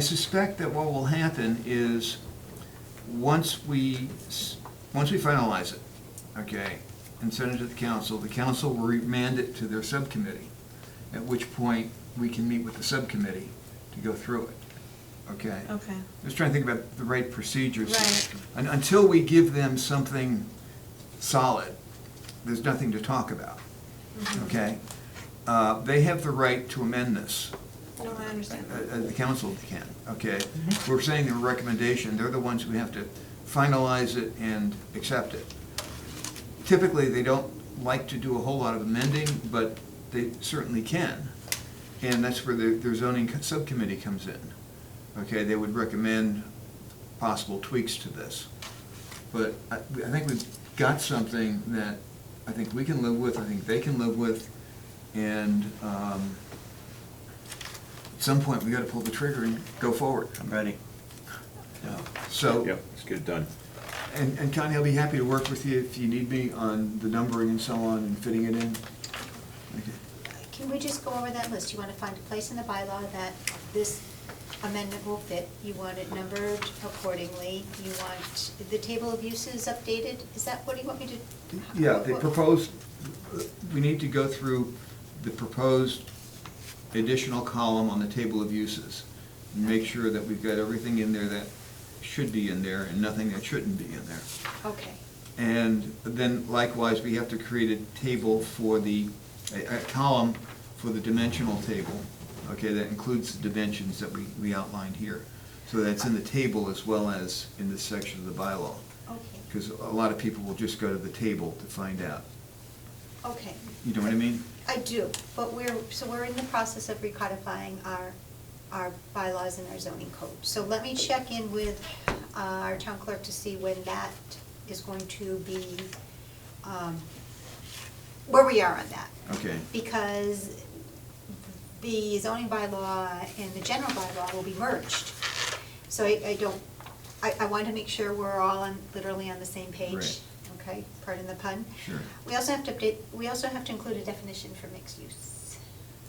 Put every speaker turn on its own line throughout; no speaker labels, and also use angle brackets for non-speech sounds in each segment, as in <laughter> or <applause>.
I suspect that what will happen is, once we, s- once we finalize it, okay, and send it to the council, the council will remand it to their subcommittee, at which point we can meet with the subcommittee to go through it, okay?
Okay,
Just trying to think about the right procedures.
Right.
Un- Until we give them something solid, there's nothing to talk about,
Mm-hmm.
okay? Uh, They have the right to amend this.
no, I understand
Uh,
that.
uh, The council can, okay? We're saying the recommendation, they're the ones who have to finalize it and accept it. Typically, they don't like to do a whole lot of amending, but they certainly can. And that's where their their zoning co- subcommittee comes in. Okay, they would recommend possible tweaks to this. But I, I think we've got something that I think we can live with, I think they can live with, and, um, at some point, we gotta pull the trigger and go forward.
I'm ready.
So,
Yep, let's get it done.
and, and Connie, I'll be happy to work with you if you need me on the numbering and so on and fitting it in. Okay.
Can we just go over that list? You want to find a place in the bylaw that this amendment will fit, you want it numbered accordingly, you want the table of uses updated, is that, what do you want me to?
Yeah, the
what-
proposed, we need to go through the proposed additional column on the table of uses. And make sure that we've got everything in there that should be in there and nothing that shouldn't be in there.
Okay,
And then likewise, we have to create a table for the, a, a column for the dimensional table, okay, that includes the dimensions that we, we outlined here. So that's in the table as well as in this section of the bylaw,
okay,
because a lot of people will just go to the table to find out.
okay.
You know what I mean?
I do, but we're, so we're in the process of recodifying our, our bylaws and our zoning code. So let me check in with uh, our town clerk to see when that is going to be, um, where we are on that.
Okay.
Because the zoning bylaw and the general bylaw will be merged. So I, I don't, I, I want to make sure we're all on, literally on the same page.
Right.
Okay, pardon the pun.
Sure.
We also have to update, we also have to include a definition for mixed use.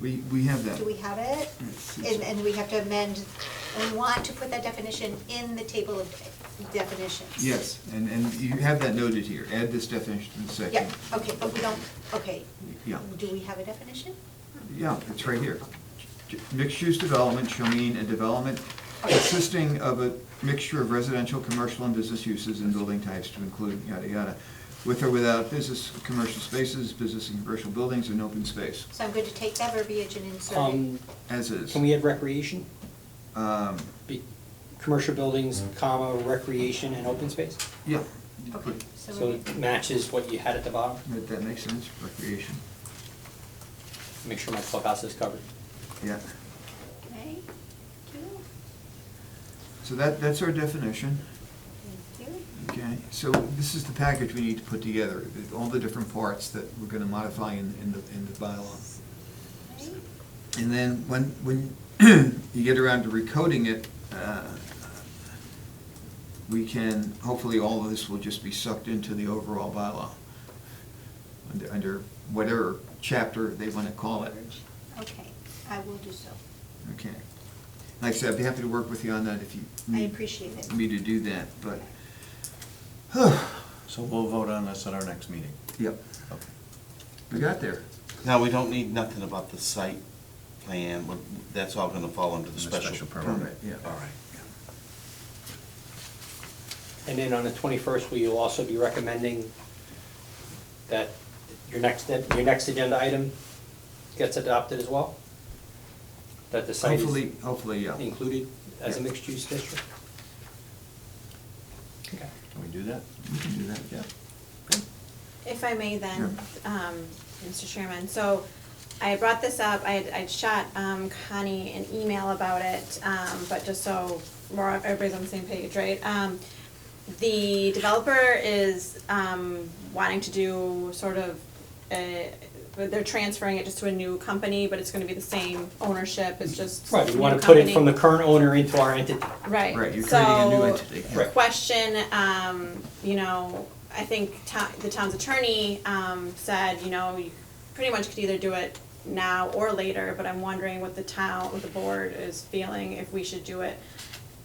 We, we have that.
Do we have it?
Yes, yes.
And, and we have to amend, and we want to put that definition in the table of definitions.
Yes, and, and you have that noted here. Add this definition to the section.
Yeah, okay, but we don't, okay.
Yeah.
Do we have a definition?
Yeah, it's right here. Mixed-use development shall mean a development consisting of a mixture of residential, commercial, and business uses and building types to include yada yada, with or without business, commercial spaces, business and commercial buildings, and open space,
So I'm going to take that verbiage and insert it.
Um,
as is.
can we add recreation?
Um,
Be, commercial buildings, comma, recreation and open space?
Yeah.
Okay,
So
so,
it matches what you had at the bottom?
That, that makes sense, recreation,
Make sure my clubhouse is covered.
yeah.
okay, thank you,
So that, that's our definition.
thank you.
Okay, so this is the package we need to put together, the- all the different parts that we're gonna modify in, in the, in the bylaw.
Okay.
And then when, when <clears throat> you get around to recoding it, uh, we can, hopefully all of this will just be sucked into the overall bylaw. Under, under whatever chapter they wanna call it.
Okay, I will do so.
Okay. Like I said, I'd be happy to work with you on that if you.
I
need
appreciate it.
Me to do that, but,
So we'll vote on this at our next meeting.
yep,
Okay.
we got there.
Now, we don't need nothing about the site plan, but that's all gonna fall under the special permit.
yeah.
All right.
And then on the twenty-first, will you also be recommending that your next, that your next agenda item gets adopted as well? That the site
Hopefully,
is
hopefully, yeah.
included as a
Yeah.
mixed-use district? Okay.
Can we do that?
We can do that, yeah.
If I may then, um, Mr. Chairman, so I brought this up, I, I shot um, Connie an email about it, um, but just so more, everybody's on the same page, right? Um, the developer is, um, wanting to do sort of, uh, they're transferring it just to a new company, but it's gonna be the same ownership, it's just
Right, we
new
wanna put it
company.
from the current owner into our entity.
Right.
Right, you're creating a new
so-
entity.
Right.
question, um, you know, I think to- the town's attorney, um, said, you know, you pretty much could either do it now or later, but I'm wondering what the town, what the board is feeling, if we should do it